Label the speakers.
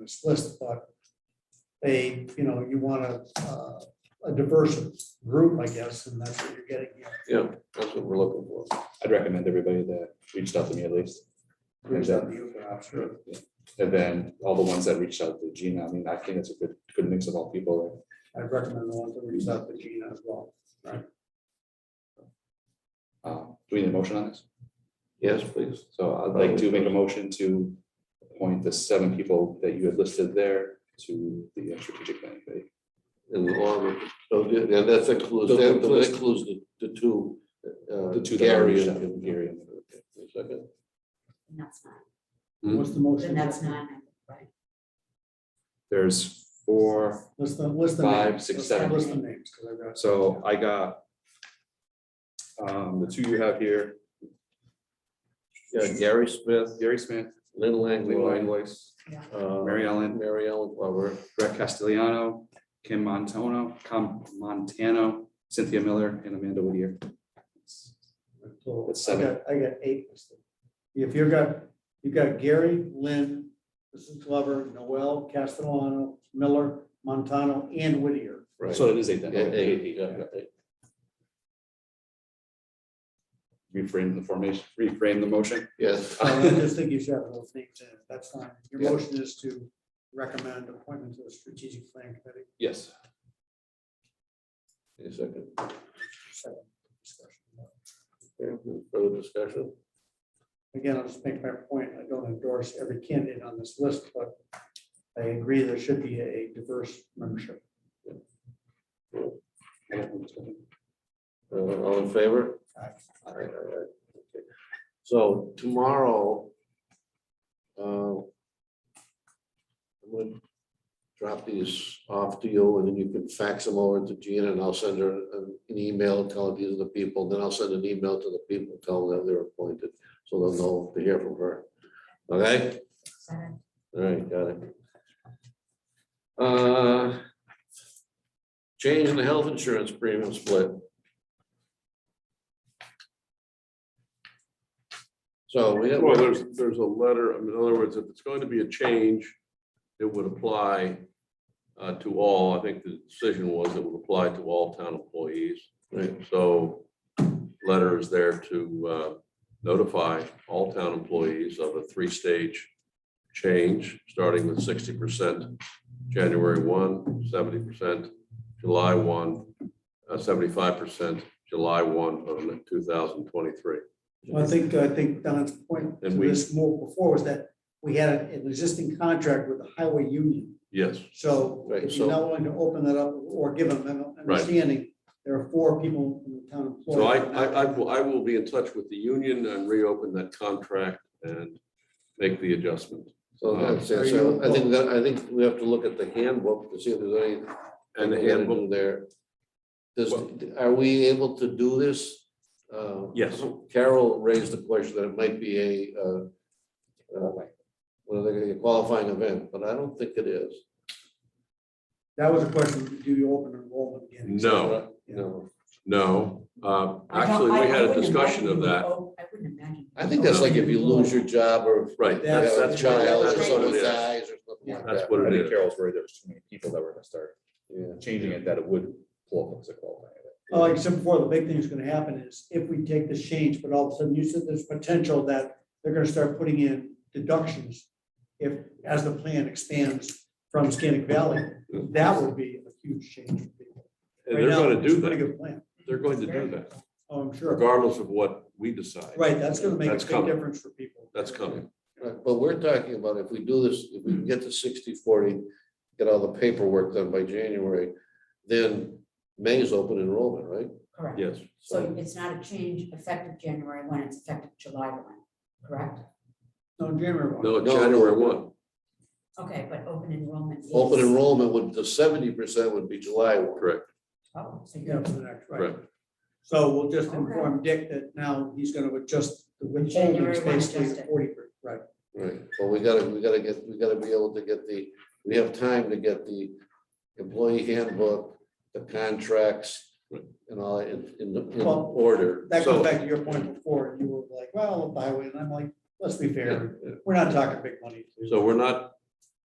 Speaker 1: this list, but they, you know, you want a, uh, a diverse group, I guess, and that's what you're getting here.
Speaker 2: Yeah, that's what we're looking for.
Speaker 3: I'd recommend everybody that reached out to me at least.
Speaker 1: Groups that you have, sure.
Speaker 3: And then all the ones that reached out to Gina, I mean, I think it's a good, good mix of all people.
Speaker 1: I recommend the ones that reach out to Gina as well.
Speaker 3: Um, Do we need a motion on this?
Speaker 2: Yes, please.
Speaker 3: So I'd like to make a motion to appoint the seven people that you had listed there to the strategic planning committee.
Speaker 2: And along with, so, yeah, and that's includes, that includes the, the two. uh,
Speaker 3: The two that are
Speaker 2: Gary
Speaker 3: reached out,
Speaker 2: and
Speaker 3: Gary
Speaker 2: Gary.
Speaker 3: and-
Speaker 2: Second.
Speaker 4: And that's nine,
Speaker 2: Hmm.
Speaker 1: What's the motion?
Speaker 4: then that's nine, right?
Speaker 3: There's four,
Speaker 1: List the, list the.
Speaker 3: Five,
Speaker 1: names.
Speaker 3: six,
Speaker 1: List-
Speaker 3: seven.
Speaker 1: List the names, because I've got.
Speaker 3: so I got um, the two you have here,
Speaker 2: Yeah, Gary Smith,
Speaker 3: Gary Smith,
Speaker 2: Lynn
Speaker 3: Leland
Speaker 2: Langlois.
Speaker 3: Weiss,
Speaker 2: uh,
Speaker 3: Mary Ellen,
Speaker 2: Mary Ellen Glover,
Speaker 3: Brett Castellano, Kim Montano, Com Montano, Cynthia Miller, and Amanda Whittier.
Speaker 1: so
Speaker 3: That's seven.
Speaker 1: I got- I got eight listed. If you've got, you've got Gary, Lynn, Mrs. Glover, Noel, Castellano, Miller, Montano, and Whittier.
Speaker 2: right?
Speaker 3: So it is eight
Speaker 2: Yeah,
Speaker 3: then.
Speaker 2: yeah,
Speaker 3: Eight,
Speaker 2: yeah,
Speaker 3: eight,
Speaker 2: yeah.
Speaker 3: Reframe the formation, reframe the motion.
Speaker 2: Yes,
Speaker 1: So I just think you should have those names in, that's fine. Your
Speaker 3: Yeah.
Speaker 1: motion is to recommend appointment to the strategic plan committee.
Speaker 3: Yes.
Speaker 2: a second.
Speaker 1: Second discussion.
Speaker 2: Okay, Further discussion?
Speaker 1: Again, I'll just make my point, I don't endorse every candidate on this list, but I agree there should be a diverse membership.
Speaker 2: Uh, All in favor?
Speaker 1: Aye.
Speaker 2: Aye, aye, aye. Okay. So tomorrow, uh, I'm gonna drop these off to you and then you can fax them over to Gina and I'll send her an an email, tell her these are the people, then I'll send an email to the people, tell them they're appointed, so they'll know to hear from her. Okay?
Speaker 4: Seven.
Speaker 2: All right, got it. Uh, Change in the health insurance premium split. So we have.
Speaker 5: Well, there's, there's a letter, I mean, in other words, if it's going to be a change, it would apply uh, to all, I think the decision was it would apply to all town employees.
Speaker 2: Right.
Speaker 5: So letter is there to uh, notify all town employees of a three-stage change, starting with sixty percent January 1, 70 percent July one, uh, seventy-five percent July one of two thousand twenty-three.
Speaker 1: Well, I think, I think Don's point to
Speaker 5: And we-
Speaker 1: this more before was that we had an existing contract with the highway union.
Speaker 5: Yes.
Speaker 1: So
Speaker 2: Right,
Speaker 1: if you're
Speaker 2: so-
Speaker 1: not willing to open that up or give them an
Speaker 5: Right.
Speaker 1: understanding, there are four people in the town employed.
Speaker 5: So I, I, I will, I will be in touch with the union and reopen that contract and make the adjustment.
Speaker 2: So that's,
Speaker 1: Are
Speaker 2: it.
Speaker 1: you-
Speaker 2: so I think that, I think we have to look at the handbook to see if there's any.
Speaker 5: And
Speaker 2: we're
Speaker 5: the
Speaker 2: gonna
Speaker 5: handbook,
Speaker 2: do There. Does, are we able to do this? Uh,
Speaker 5: Yes.
Speaker 2: Carol raised the question that it might be a, uh, uh, what are they gonna, a qualifying event, but I don't think it is.
Speaker 1: That was a question, do you open enrollment again?
Speaker 5: no,
Speaker 1: Yeah.
Speaker 2: No,
Speaker 5: no. Uh,
Speaker 4: I don't-
Speaker 5: Actually,
Speaker 4: I-
Speaker 5: we
Speaker 4: I
Speaker 5: had a
Speaker 4: wouldn't
Speaker 5: discussion
Speaker 4: imagine
Speaker 5: of
Speaker 4: you would
Speaker 5: that.
Speaker 4: op- I wouldn't imagine.
Speaker 2: I think that's like if you lose your job or if
Speaker 5: Right,
Speaker 2: you have
Speaker 5: that's,
Speaker 2: a
Speaker 5: that's what
Speaker 2: child or
Speaker 5: that's what
Speaker 2: someone
Speaker 5: it is.
Speaker 2: dies or something like
Speaker 5: That's
Speaker 2: that.
Speaker 5: what
Speaker 3: I
Speaker 5: it
Speaker 3: think
Speaker 5: is.
Speaker 3: Carol's worried there's too many people that were gonna start
Speaker 2: Yeah.
Speaker 3: changing it that it would pull up as a qualifying. event.
Speaker 1: Oh, Like I said before, the big thing that's gonna happen is if we take this change, but all of a sudden you said there's potential that they're gonna start putting in deductions. If, as the plan expands from Scannick Valley, that would be a huge change for people.
Speaker 5: And
Speaker 1: Right
Speaker 5: they're
Speaker 1: now,
Speaker 5: going to
Speaker 1: it's a
Speaker 5: do
Speaker 1: Pretty
Speaker 5: that.
Speaker 1: good plan.
Speaker 5: They're going to do that,
Speaker 1: Oh, I'm sure.
Speaker 5: regardless of what we decide.
Speaker 1: Right, that's gonna make a
Speaker 5: That's
Speaker 1: big
Speaker 5: coming.
Speaker 1: difference for people.
Speaker 5: That's coming.
Speaker 2: Right, But we're talking about if we do this, if we can get to 60-40, get all the paperwork done by January, then May is open enrollment, right?
Speaker 4: Correct.
Speaker 5: Yes.
Speaker 4: So it's not a change effective January one, it's effective July one, correct?
Speaker 1: No, January one.
Speaker 5: No,
Speaker 2: No,
Speaker 5: January
Speaker 2: no.
Speaker 5: one.
Speaker 4: Okay, but open enrollment. is-
Speaker 2: Open enrollment would, the seventy percent would be July one.
Speaker 5: Correct,
Speaker 4: Oh, so
Speaker 1: Yeah,
Speaker 4: you're,
Speaker 1: for the next, right.
Speaker 5: correct.
Speaker 1: So we'll just
Speaker 4: Okay.
Speaker 1: inform Dick that now he's gonna adjust the withholding
Speaker 4: January one
Speaker 1: basically
Speaker 4: adjusted.
Speaker 1: forty, right?
Speaker 2: Right, well, we gotta, we gotta get, we gotta be able to get the, we have time to get the employee handbook, the contracts, and all in, in, in
Speaker 1: Well,
Speaker 2: order.
Speaker 1: That
Speaker 5: So-
Speaker 1: goes back to your point before, you were like, well, the highway, and I'm like, let's be fair, we're not talking big money.
Speaker 5: So we're not,